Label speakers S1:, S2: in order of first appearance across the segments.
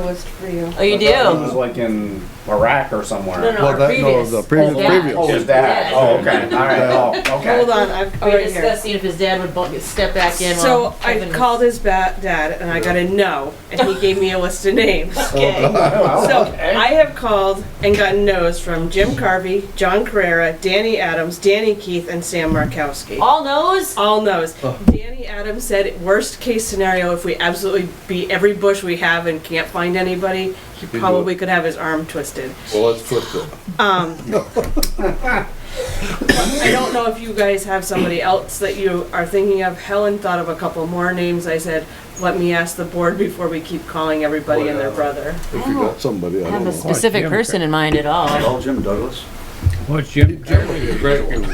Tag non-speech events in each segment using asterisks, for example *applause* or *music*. S1: list for you.
S2: Oh, you
S3: I thought He was
S2: do?
S3: like in Iraq or somewhere.
S2: No, no.
S4: Well,
S2: our
S4: that, no,
S2: previous-
S4: the previous,
S2: Oh, yeah.
S3: Oh,
S4: previous.
S3: is that?
S2: Yeah.
S3: Oh, okay. All
S2: *laughs*
S3: right. Oh, okay.
S1: Hold on, I've,
S2: We
S1: right
S2: were
S1: here.
S2: discussing if his dad would bu- step back in
S1: So
S2: while
S1: I
S2: Kevin was-
S1: called his ba- dad and I got a no, and he gave me a list of names.
S2: Okay.
S3: Oh, Well,
S1: So
S3: okay.
S1: I have called and gotten no's from Jim Carvey, John Carrera, Danny Adams, Danny Keith, and Sam Markowski.
S2: All
S4: Oh,
S2: knows?
S1: All no's. Danny Adams said, worst case scenario, if we absolutely beat every bush we have and can't find anybody, he
S5: it.
S1: probably could have his arm twisted.
S5: Well, let's flip them.
S1: I don't know if you guys have somebody else that you are thinking of. Helen thought of a couple more names. I said, let me ask the board before we keep calling everybody and their brother.
S5: If you got somebody, I
S2: I have a
S5: don't know.
S2: specific person in mind at all.
S6: Call Jim Douglas.
S7: What's Jim Carrey?
S5: You're Great one.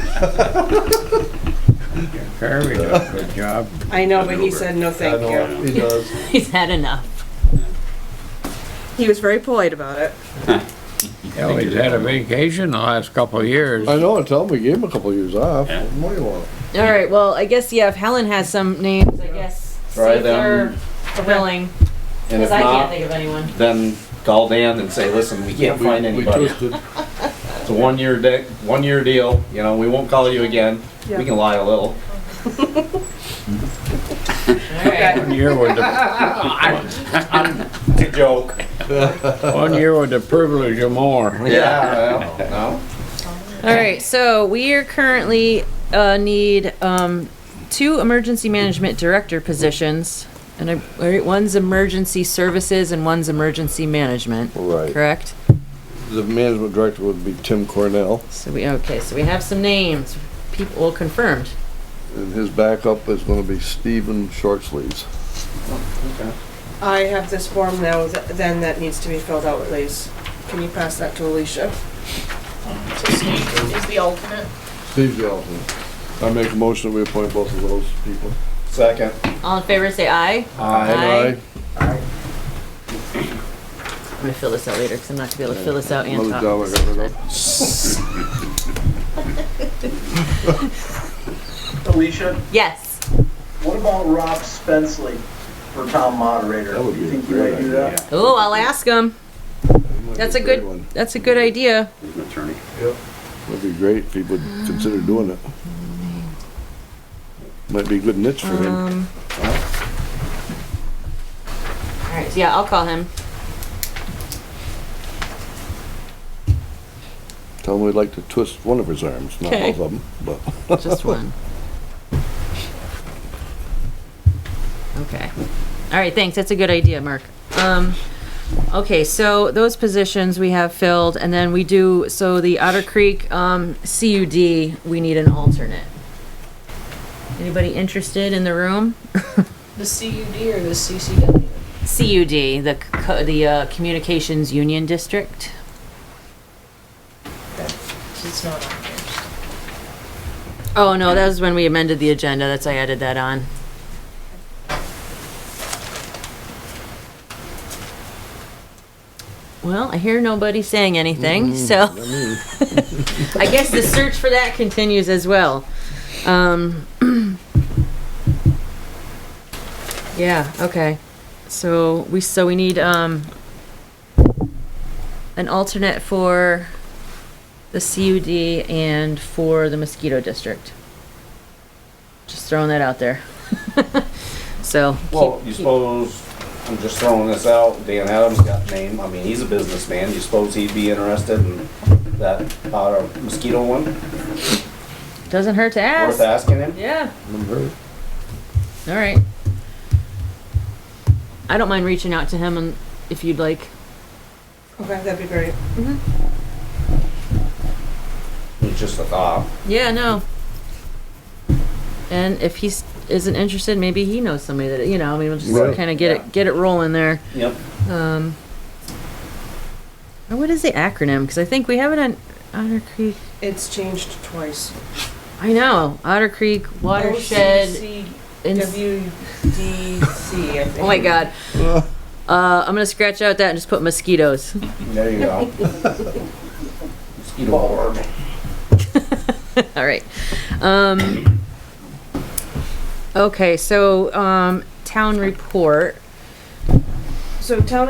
S7: Carrey does a good job.
S1: I know, but he said, no,
S5: I
S1: thank you.
S5: know, he does.
S2: *laughs* He's had enough.
S1: He was very polite about it.
S7: Hell, he's had a vacation the last couple of years.
S4: I know, I tell him we gave him a couple of years off.
S6: Yeah.
S4: What do you want?
S2: All right, well, I guess, yeah, if Helen has some names, I guess,
S3: Try
S2: see if they're
S3: them.
S2: willing,
S3: and if
S2: because I can't
S3: not,
S2: think of anyone.
S3: then call Dan and say, listen, we can't
S5: We-
S3: find
S5: we
S3: anybody.
S5: twisted.
S3: It's a one-year de- one-year deal. You know, we won't call you again.
S1: Yeah.
S3: We can lie a little.
S2: All right.
S7: One year with
S4: *laughs*
S7: the,
S3: It's a joke.
S7: one year with the privilege of more.
S3: Yeah. well, no.
S2: All right, so we are currently, uh, need, um, two emergency management director positions. And I, all right, one's emergency services and one's emergency management,
S4: Right.
S2: correct?
S4: The management director would be Tim Cornell,
S2: So we, okay, so we have some names, people, well, confirmed.
S4: and his backup is gonna be Stephen Shortsleeves.
S1: I have this form now, th- then, that needs to be filled out, please. Can you pass that to Alicia?
S8: So Steve is the alternate.
S4: Steve Johnson. I make a motion that we appoint both of those people.
S3: Second.
S2: All in favor, say aye.
S3: I.
S2: Aye. I'm gonna fill this out later, because I'm not gonna be able to fill this out and
S4: Another
S2: talk.
S4: job I got rid of.
S9: Alicia,
S2: Yes.
S9: what about Rob Spenceley for town moderator?
S4: That would
S9: Do you
S4: be a
S9: think you
S4: great
S9: might do
S4: idea.
S9: that?
S2: Oh, I'll ask him. That's a good,
S4: one.
S2: that's a good idea.
S6: He's an attorney.
S4: That'd be great if he would consider doing it. Might be a good niche for him.
S2: Um. All right, yeah, I'll call him.
S4: Tell him we'd like to twist one of his arms, not
S2: Okay.
S4: both of them, but.
S2: Just one. Okay. All right, thanks. That's a good idea, Mark. Um, okay, so those positions we have filled, and then we do, so the Otter Creek, um, CUD, we need an alternate. Anybody interested in the room?
S8: The CUD or the CCW?
S2: CUD, the, co- the, uh, Communications Union District.
S8: It's not on there.
S2: Oh, no, that was when we amended the agenda. That's, I added that on. Well, I hear nobody saying anything, so *laughs* I guess the search for that continues as well. Um, *clears throat* yeah, okay. So we, so we need, um, an alternate for the CUD and for the mosquito district. Just throwing that out there. *laughs* So. keep-
S3: Well, you suppose, I'm just throwing this out, Dan Adams got name, I mean, he's a businessman, you suppose he'd be interested in that, uh, mosquito one?
S2: Doesn't hurt to ask.
S3: Worth asking him?
S2: Yeah,
S4: Remember?
S2: all right. I don't mind reaching out to him and if you'd like.
S1: Okay, that'd be great.
S3: It's just a thought.
S2: Yeah, no. And if he isn't interested, maybe he knows somebody that, you know, I mean, we'll
S4: Right.
S2: just kind of get
S3: Yeah.
S2: it, get it rolling there.
S3: Yep.
S2: Um, or what is the acronym? Because I think we have it on Otter Creek.
S1: It's changed twice.
S2: I know Otter Creek watershed. ins-
S1: WDC, I think.
S2: oh my God. Uh, I'm gonna scratch out that and just put mosquitoes.
S3: There you go. Mosquito board.
S2: *laughs* All right. Um, okay, so um, town report.
S1: So town